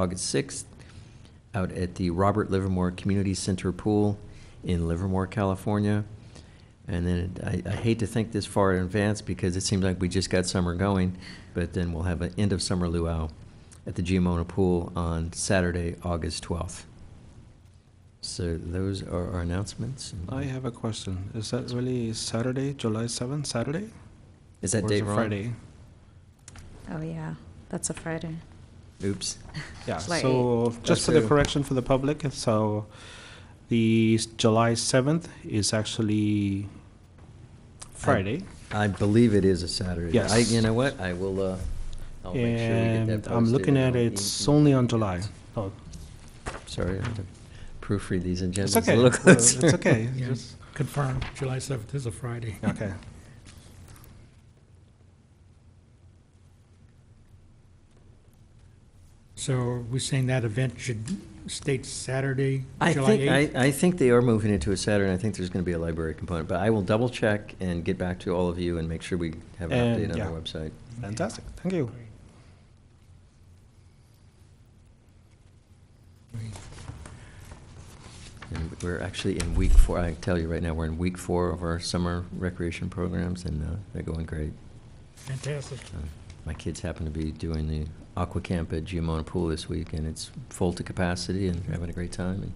August 6th, out at the Robert Livermore Community Center Pool in Livermore, California. And then I- I hate to think this far in advance because it seems like we just got summer going, but then we'll have an end of summer luau at the Giamona Pool on Saturday, August 12th. So those are our announcements. I have a question. Is that really Saturday, July 7th, Saturday? Is that Or is date it wrong? Friday? Oh, yeah, that's a Friday. Oops. Yeah, Like- so just for the correction for the public, so the s- July 7th is actually Friday. I believe it is a Saturday. Yes. I- You know what? I will, uh, I'll make sure we get that And posted. I'm looking at and I'll it, e- it's e- only on July. Oh, Sorry, I have to proofread these It's agendas a okay, little Well, closer. it's okay. Yeah. Just- Confirmed, July 7th is a Friday. Okay. So we're saying that event should state Saturday, I July think, 8th? I, I think they are moving it to a Saturday, and I think there's gonna be a library component, but I will double check and get back to all of you and make sure we have an And, update on yeah. our website. Fantastic, thank you. And we're actually in week four, I tell you right now, we're in week four of our summer recreation programs, and, uh, they're going great. Fantastic. Uh, My kids happen to be doing the aqua camp at Giamona Pool this week, and it's full to capacity, and Mm-hmm. they're having a great time. And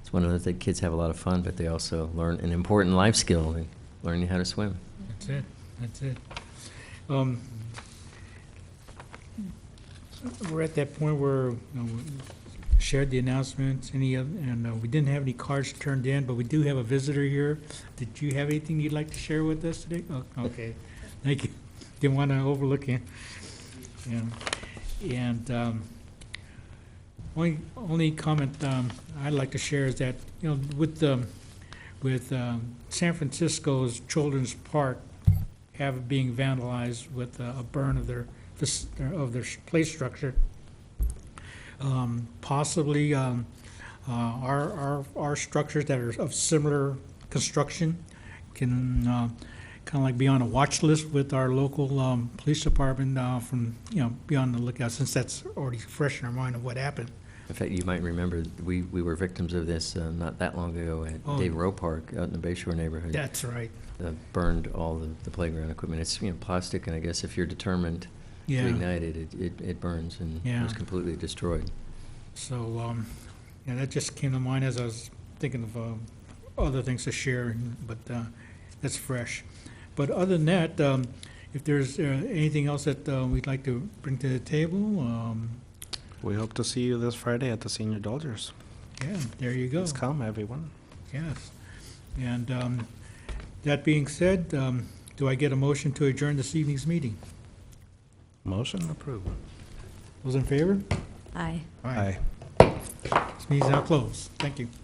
it's one of the things kids have a lot of fun, but they also learn an important life skill, like learning how to swim. That's it, that's it. Um, We're at that point where you know, we shared the announcements, any, of- and uh, we didn't have any cards turned in, but we do have a visitor here. Did you have anything you'd like to share with us today? Oh, Okay, thank you. Didn't want to overlook you. Yeah. And um, only, only comment um, I'd like to share is that, you know, with the with um, San Francisco's Children's Park have being vandalized with uh, a burn of their, fas- of their play structure. Um, Possibly um, uh, our, our, our structures that are of similar construction can kind of like be on a watch list with our local um, police department uh, from, you know, be on the lookout, since that's already fresh in our mind of what happened. In fact, you might remember, we, we were victims of this uh, not that long ago at Oh. Dave Rowe Park out in the Bay Shore neighborhood. That's right, Uh, Burned all the, the playground equipment. It's, you know, plastic, and I guess if you're determined to yeah. ignite it, it, it- it burns and it was Yeah. completely destroyed. So, um, yeah, that just came to mind as I was thinking of, um, other things to share, and- but, uh, that's fresh. But other than that, um, if there's, uh, anything else that, uh, we'd like to bring to the table, um, We hope to see you this Friday at the Senior Dodgers. yeah, there you go. Please come, everyone. Yes. And, um, that being said, um, do I get a motion to adjourn this evening's meeting? Motion approved. Those in favor? Aye. This meeting's now closed. Thank you.